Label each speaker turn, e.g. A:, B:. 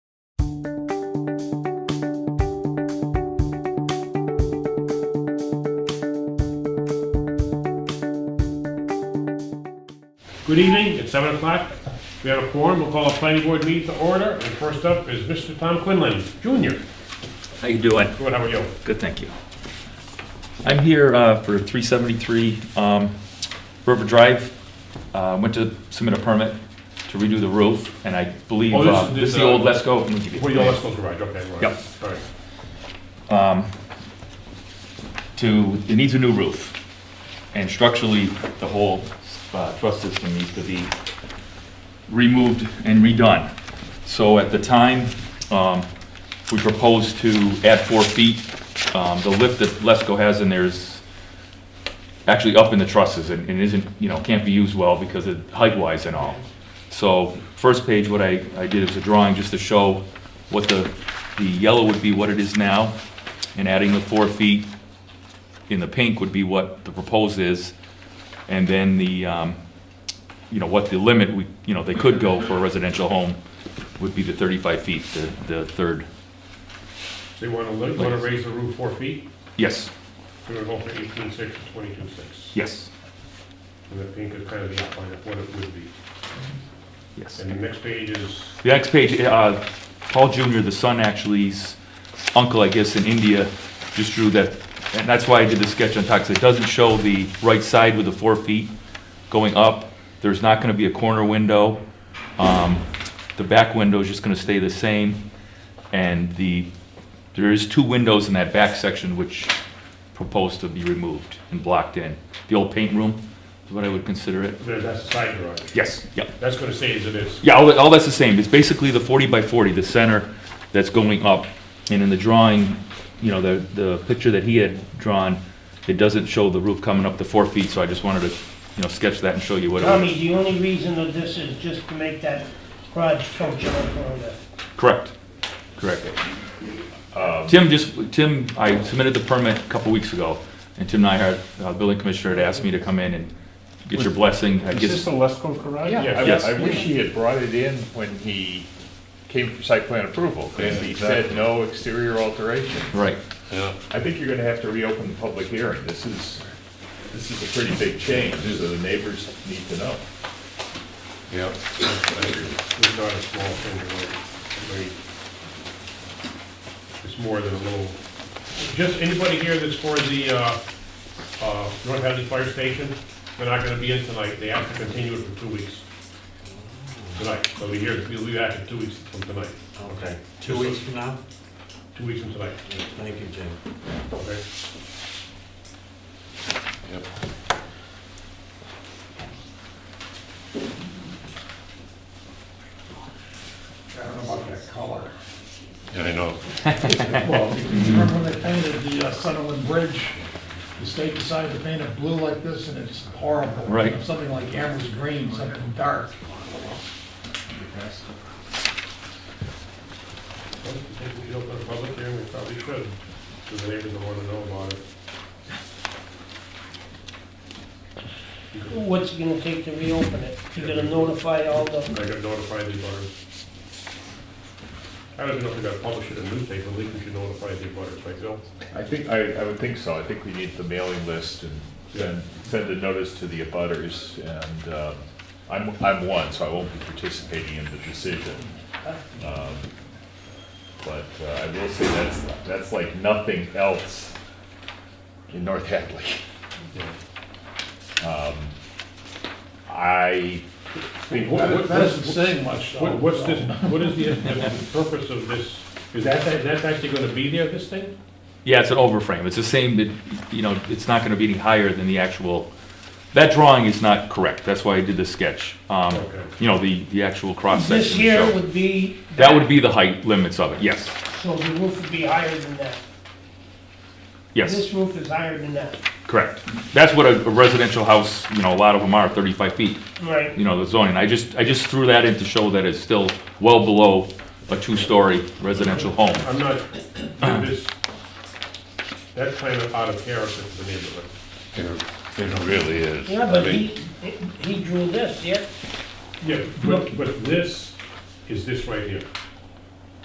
A: Good evening, it's seven o'clock. We have a quorum, we'll call a planning board meeting to order, and first up is Mr. Tom Quinlan, Jr.
B: How you doing?
A: Good, how are you?
B: Good, thank you. I'm here uh, for 373 um, River Drive. Uh, Went to submit a permit to redo the roof, and I believe
A: Oh, this
B: uh,
A: is-
B: this is
A: this,
B: the
A: uh,
B: old Lesco.
A: Well, your last goes right, okay, right.
B: Yep.
A: All right.
B: To, it needs a new roof. And structurally, the whole uh, truss system needs to be removed and redone. So at the time, um, we proposed to add four feet. Um, The lift that Lesco has in there is actually up in the trusses and and isn't, you know, can't be used well because of height-wise and all. So first page, what I, I did is a drawing just to show what the, the yellow would be what it is now, and adding the four feet in the pink would be what the proposed is, and then the, um, you know, what the limit, we, you know, they could go for a residential home would be the 35 feet, the, the third,
A: So you want to, you want to raise the roof four feet,
B: yes,
A: so we're going from eighteen six to twenty-two six.
B: yes,
A: And the pink is kind of the outline of what it would be.
B: yes.
A: And the next page is,
B: The next page, uh, Paul Jr., the son actually's uncle, I guess, in India, just drew that, and that's why I did the sketch on top, 'cause it doesn't show the right side with the four feet going up. There's not gonna be a corner window. Um, The back window is just gonna stay the same. And the, there is two windows in that back section which proposed to be removed and blocked in. The old paint room is what I would consider it.
A: there- that's the side yard.
B: Yes, yep.
A: That's going to stay as it is.
B: Yeah, all, that- all that's the same. It's basically the 40 by 40, the center that's going up. And in the drawing, you know, the, the picture that he had drawn, it doesn't show the roof coming up to four feet, so I just wanted to, you know, sketch that and show you what it was.
C: Tommy, the only reason of this is just to make that garage functional for the,
B: Correct, correct.
D: Um,
B: Tim just, Tim, I submitted the permit a couple weeks ago, and Tim Nyhard, uh, building commissioner, had asked me to come in and get your blessing. I
D: Is
B: guess,
D: this the Lesko garage?
A: Yeah.
E: Yeah,
B: Yes.
E: I- I wish he had brought it in when he came for site plan approval, and he said no exterior alteration.
B: right,
E: I think you're gonna have to reopen the public hearing, this is, this is a pretty big change, so the neighbors need to know.
A: Yep. It's not a small thing, right? I mean, It's more than a little, just anybody here that's for the, uh, uh, North Hadley Fire Station, they're not gonna be in tonight, they have to continue it for two weeks. Tonight, so we hear, we'll be back in two weeks from tonight, okay?
F: Two weeks from now?
A: Two weeks from tonight,
F: Thank you, Jim.
A: okay?
G: I don't know about that color.
A: Yeah, I know.
G: Well, remember when they painted the uh, Sunderland Bridge? The state decided to paint it blue like this, and it's horrible.
B: Right.
G: Something like Amherst green, something dark.
A: Well, If we open a public hearing, we probably should, because the neighbors don't wanna know about it.
C: what's it gonna take to reopen it? You're gonna notify all the,
A: I got notified the abutters. I don't even know if we gotta publish it in the newspaper, at least we should notify the abutters, right, Bill?
E: I think, I, I would think so, I think we need the mailing list and send, send a notice to the abutters, and, um, I'm, I'm one, so I won't be participating in the decision. Um, But uh, I will say that's, that's like nothing else in North Hadley. Um, I,
A: I mean, what,
G: That
A: what,
G: that doesn't
A: what's-
G: say much, though.
A: what- what's this, what is the, the purpose of this? Is that, that- that's actually gonna be there, this thing?
B: yeah, it's an overframe. It's the same, that, you know, it's not gonna be any higher than the actual, that drawing is not correct, that's why I did the sketch. Um,
A: Okay.
B: you know, the, the actual cross section.
C: this here would be,
B: That would be the height limits of it, yes,
C: so the roof would be higher than that.
B: yes,
C: This roof is higher than that.
B: correct. That's what a a residential house, you know, a lot of them are, 35 feet,
C: Right.
B: you know, the zoning. I just, I just threw that in to show that it's still well below a two-story residential home.
A: I'm not, this, that's kind of out of character for the neighborhood.
C: Yeah, but he, he drew this, yeah?
A: Yeah, but, but this is this right here.